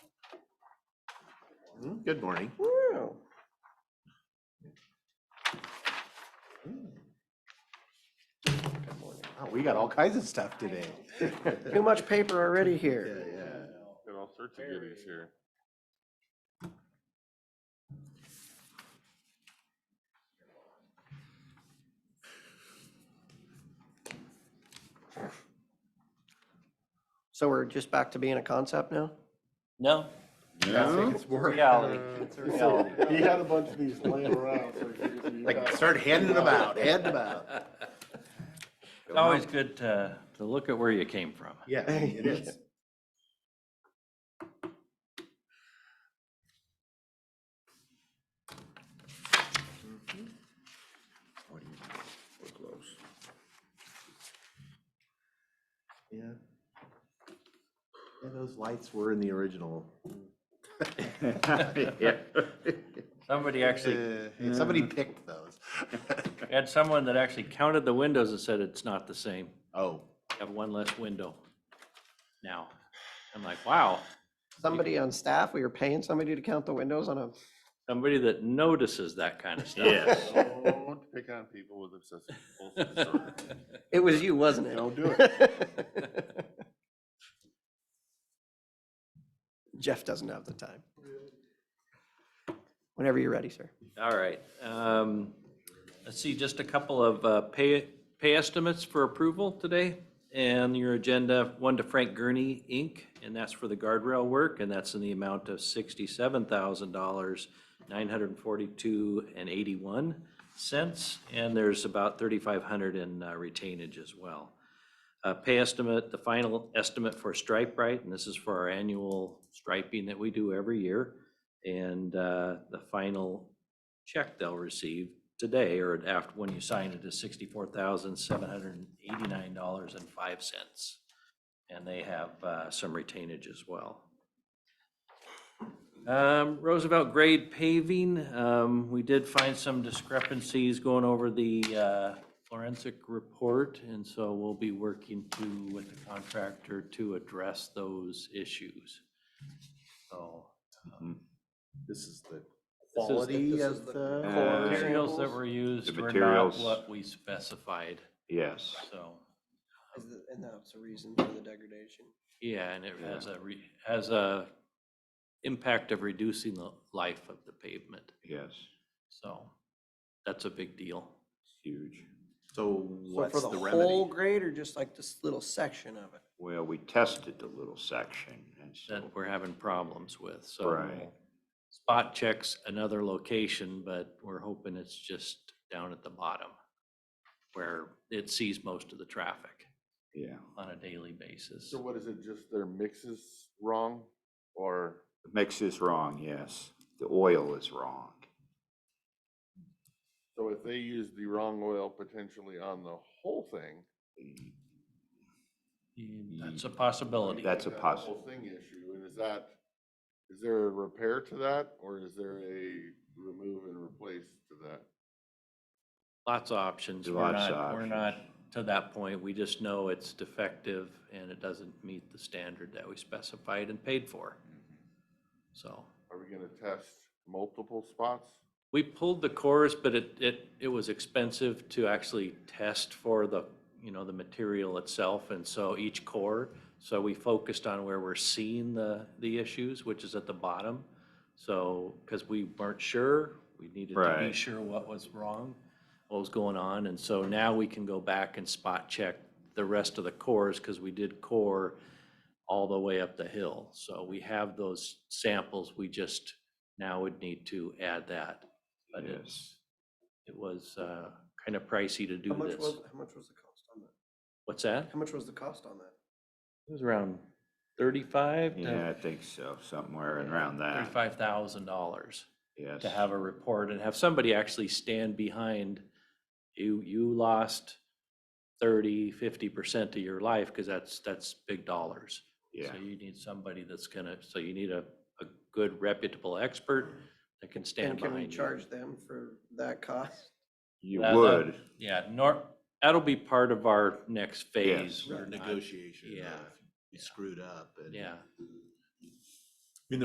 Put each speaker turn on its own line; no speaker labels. Mm, Good morning.
Wow.
Good morning. Wow, We got all kinds of stuff today.
Too much paper already
Yeah,
here.
yeah.
Got all sorts of goodies here.
So we're just back to being a concept now?
No,
I think it's more
reality. It's a
So,
reality.
He had a bunch of these laying around, so he figured you
like
got-
start handing them out, handing them out.
It's always good to, to look at where you came from.
Yeah, it is. Mm-hmm.
We're close.
Yeah. Yeah, those lights were in the original. Yeah.
Somebody actually,
Uh, Somebody picked those.
we had someone that actually counted the windows and said it's not the same.
Oh,
You Have one less window now. I'm like, wow,
Somebody on staff, we were paying somebody to count the windows on a,
somebody that notices that kind of stuff.
yes.
Don't pick on people with obsessive compulsive disorder.
it was you, wasn't it?
Don't do
it. Jeff doesn't have the time. Whenever you're ready, sir.
All right. um, Let's see, just a couple of uh, pay, pay estimates for approval today. And your agenda, one to Frank Gurney, Inc., and that's for the guardrail work, and that's in the amount of sixty-seven thousand dollars, nine hundred and forty-two and eighty-one cents. And there's about thirty-five hundred in uh, retainage as well. Uh, Pay estimate, the final estimate for Stripe Right, and this is for our annual striping that we do every year. And uh, the final check they'll receive today or after, when you sign it, is sixty-four thousand, seven hundred and eighty-nine dollars and five cents. And they have uh, some retainage as well. Um, Roosevelt grade paving, um, we did find some discrepancies going over the uh, forensic report, and so we'll be working to, with the contractor to address those issues. So
This is the
This is the-
quality
this
of the.
the
core
materials that
samples?
were used
The
were not
materials.
what we specified,
Yes,
so,
And that's the reason for the degradation.
yeah, and it has a, re- has a impact of reducing the life of the pavement,
yes,
so that's a big deal.
huge.
So
So
what's
for
the
the whole
remedy?
grade or just like this little section of it?
Well, we tested the little section and so,
that we're having problems with, so.
Right.
Spot checks another location, but we're hoping it's just down at the bottom where it sees most of the traffic
yeah,
on a daily basis.
So what is it, just their mix is wrong or?
the mix is wrong, yes. The oil is wrong.
So if they use the wrong oil potentially on the whole thing.
That's a possibility.
That's a
we've got
possi-
Whole thing issue, and is that, is there a repair to that, or is there a remove and replace to that?
Lots of options. We're
Lots of
not, we're
options.
not to that point. We just know it's defective and it doesn't meet the standard that we specified and paid for. Mm-hmm. So
Are we gonna test multiple spots?
we pulled the cores, but it, it, it was expensive to actually test for the, you know, the material itself. And so each core, so we focused on where we're seeing the, the issues, which is at the bottom. So, because we weren't sure, we needed to be
Right.
sure what was wrong, what was going on. And so now we can go back and spot check the rest of the cores because we did core all the way up the hill. So we have those samples. We just now would need to add that. But
Yes.
it's, it was uh, kind of pricey to do
How much
this.
was, how much was the cost on that?
What's that?
How much was the cost on that?
It was around thirty-five
Yeah, I
to
think so, somewhere around that,
thirty-five thousand dollars.
yes.
to have a report and have somebody actually stand behind, you, you lost 30, 50% of your life, because that's, that's big dollars.
Yeah,
So you need somebody that's gonna, so you need a, a good reputable expert that can stand
And can
behind you.
we charge them for that cost?
you
that- that-
would,
Yeah, nor, that'll be part of our next phase.
Yes.
We're
Or
not-
Negotiation.
Yeah,
of, You screwed up and.
Yeah,